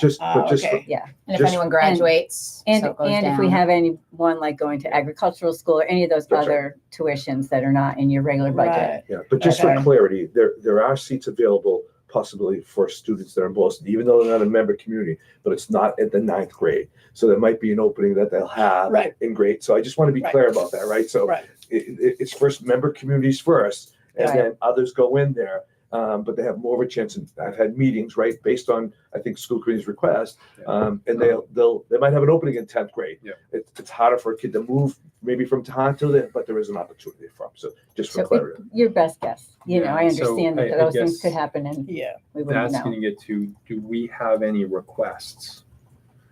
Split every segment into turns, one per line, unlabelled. Just, but
Oh,
just,
okay.
Yeah.
And if
Just-
anyone graduates,
And,
so it goes
and if we
down.
have anyone like going to agricultural school or any of those
That's right.
other tuitions that are not in your regular budget.
Right.
yeah, but just for
Okay.
clarity, there, there are seats available possibly for students that are in Boylston, even though they're not a member community, but it's not at the ninth grade. So there might be an opening that they'll have
Right.
in grade. So I just want to be
Right.
clear about that, right? So
Right.
it, it, it's first member communities first, and
Right.
then others go in there. Um, but they have more of a chance. And I've had meetings, right, based on I think school committee's request, um, and they'll they'll they might have an opening in tenth grade.
Yeah.
It, it's harder for a kid to move maybe from Tohoto there, but there is an opportunity for 'em. So just for
So
clarity.
it- your best guess, you know, I
Yeah, so
understand that
I- I
those things
guess
could happen and
Yeah.
we wouldn't
That's
know.
gonna get to, do we have any requests?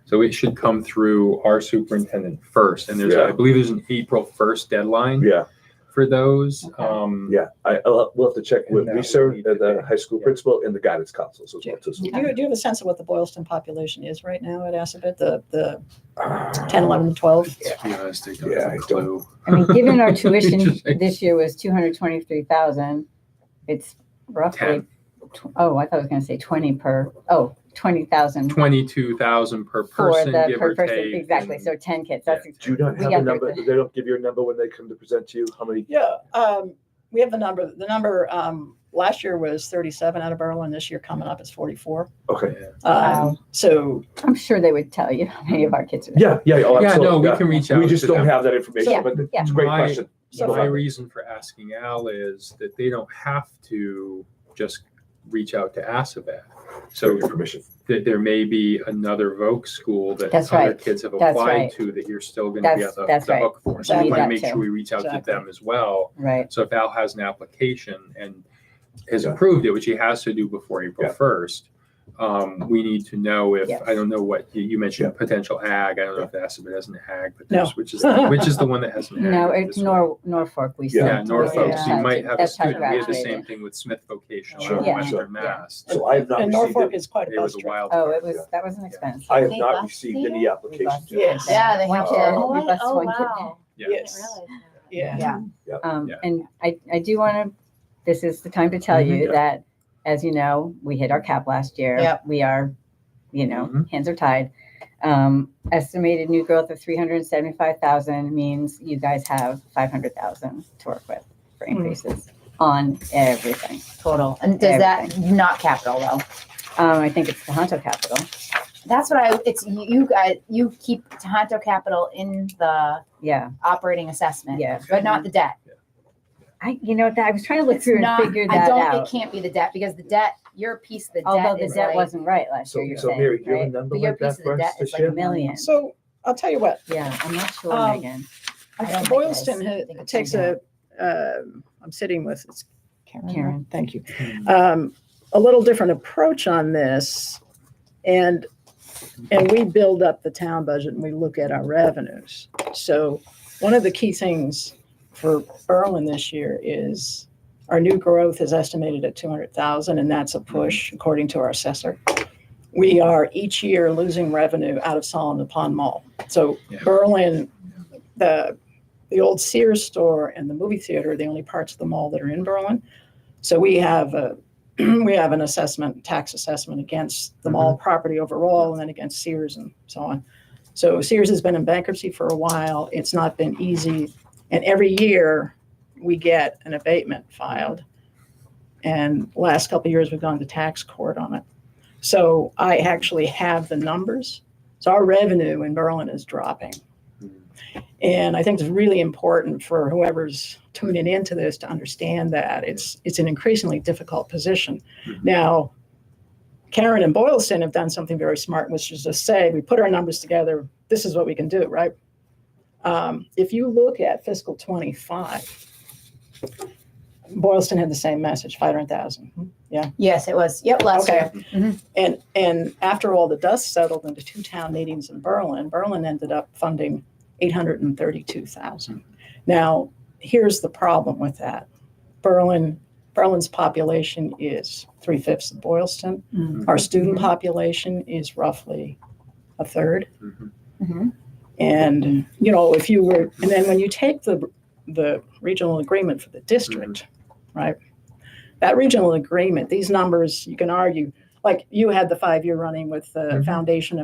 So it should come through our superintendent first, and there's, a- I
Yeah.
believe there's an April first deadline
Yeah,
for those.
Okay.
Um,
yeah. I I'll, we'll have to check with
And that
Lisa,
would need to
uh, the
be-
high school
yeah.
principal, and the guidance council. So
Ju-
it's just-
Do you, do you have a sense of what the Boylston population is right now at Assabet? The, the
Ah,
um, 10, 11, 12?
To be honest, I don't
Yeah,
have
I
a
don't-
clue.
I mean, given our tuition
Just like-
this year was two hundred twenty-three thousand, it's roughly,
Ten.
tw- oh, I thought I was gonna say twenty per, oh, twenty thousand
Twenty-two thousand per
for
person,
the
give
per
or
person,
take.
exactly, so ten kids, that's,
Do you not
We
have
got
a number?
there.
They don't give you a number when they come to present to you. How many?
Yeah. Um, we have the number. The number um, last year was 37 out of Berlin. This year coming up is 44.
Okay.
Um,
Wow.
So
I'm sure they would tell you how many of our kids are. there.
Yeah, yeah, yeah. oh,
Yeah, no,
absolutely,
we can reach out.
We just
to
don't
them.
have that information,
Yeah,
but
yeah.
it's a great
My-
question.
So-
My reason for asking Al is that they don't have to just reach out to Assabet.
So
So
your permission.
that there may be another Voc school that
That's
other
right.
kids have
That's
applied
right.
to that you're still going to be
That's-
on the,
that's
the
right.
hook for. So
Exactly.
we want to
That
make
too.
sure we reach out
Exactly.
to them as well.
Right,
So if Al has an application and has
Yeah.
approved it, which he has to do before April
Yeah.
first, um, we need to know if
Yes.
I don't know what you, you mentioned potential ag. I don't know if that's if it has an ag, but
No.
there's, which is which is the one that has an ag.
no,
at
it's
this
Nor, Norfolk, we
Yeah.
said.
yeah, Norfolk. So
Yeah.
you might have a
That's how
student. We had the
graduated.
same thing with Smith Vocational
Sure.
out of
Yeah.
Sure.
Western Mass.
So I have not
and
received,
Norfolk
it.
is quite a
It
bus
was a
trip.
wild.
Oh,
card,
it was,
Yeah.
that was an expense.
I have
They
not
bus
received
fee?
any applications.
Yeah. Yes.
Yeah, they
One
have
kid,
to.
we bus
Oh,
one kid.
wow.
Yeah.
I didn't
Yes.
realize that.
Yeah.
Yeah.
Um,
Yeah.
and I, I do want to, this is the time to tell
Mhm.
you
Yeah.
that, as you know, we hit our cap last year.
Yep.
We are, you know,
Mhm.
hands are tied. Um, estimated new growth of 375,000 means you guys have 500,000 to work with for increases on everything.
Total. And does that not capital though?
Um, I think it's the Honto capital.
That's what I, it's you- you guys, you keep Tohoto Capital in the
Yeah.
operating assessment,
Yeah.
but not the debt.
I, you know, that I was trying to look
It's
through and
not,
figure
I
that
don't, it
out.
can't be the debt because the debt, your piece of the
Although
debt
the
is
debt
like,
wasn't right last
So,
year, you're
so
saying,
Mary, do you have a
right?
number
but your
like
piece
that
of
for
the
us
debt
to
is like a
share?
million.
Million.
So I'll tell you what,
Yeah, I'm not sure,
Um,
Megan.
I don't think it
Boylston
is.
ha-
I think it's
takes
in
a, um, I'm sitting with, it's Karen, right?
Karen.
thank you.
Hmm.
Um, A little different approach on this. And, and we build up the town budget and we look at our revenues. So one of the key things for Berlin this year is our new growth is estimated at 200,000 and that's a push according to our assessor. We are each year losing revenue out of Solomon Pond Mall. So
Yeah.
Berlin, the, the old Sears store and the movie theater are the only parts of the mall that are in Berlin. So we have a, we have an assessment, tax assessment against the mall property overall and then against Sears and so on. So Sears has been in bankruptcy for a while. It's not been easy. And every year we get an abatement filed. And last couple of years, we've gone to tax court on it. So I actually have the numbers. So our revenue in Berlin is dropping. And I think it's really important for whoever's tuning into this to understand that it's it's an increasingly difficult position.
Mhm.
Now, Karen and Boylston have done something very smart, which is to say we put our numbers together. This is what we can do, right? Um, if you look at fiscal 25, Boylston had the same message, 500,000.
there. Yes, it was. Yep, last
Okay.
year.
And, and after all the dust settled into two town meetings in Berlin, Berlin ended up funding 832,000. Now, here's the problem with that. Berlin, Berlin's population is three fifths of Boylston.
Mhm.
Our student population is roughly a third.
Mhm.
Mhm.
And, you know, if you were, and then when you take the, the regional agreement for the district, right? That regional agreement, these numbers, you can argue, like you had the five year running with the
Mhm.
foundation